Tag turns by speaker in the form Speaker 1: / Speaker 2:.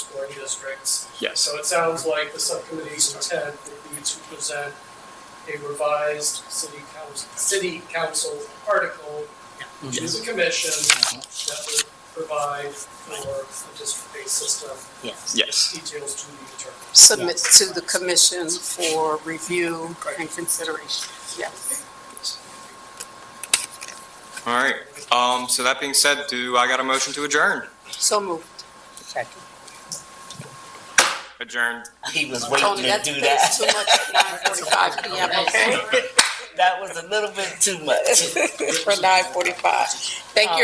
Speaker 1: overlay districts.
Speaker 2: Yes.
Speaker 1: So it sounds like the subcommittee's intent would be to present a revised city council, city council article to
Speaker 2: Yes.
Speaker 1: the commission that would provide for a district-based system,
Speaker 3: Yes.
Speaker 2: Yes.
Speaker 1: details to be determined.
Speaker 4: submit to the commission for review and consideration, yes.
Speaker 2: All right. Um, so that being said, do I got a motion to adjourn?
Speaker 4: So moved.
Speaker 3: Second.
Speaker 2: Adjourn.
Speaker 3: He was
Speaker 4: Tony,
Speaker 3: waiting to
Speaker 4: that's
Speaker 3: do
Speaker 4: that's too
Speaker 3: that.
Speaker 4: much at nine forty-five PM, okay?
Speaker 3: That was a little bit too much.
Speaker 4: For nine forty-five. Thank you,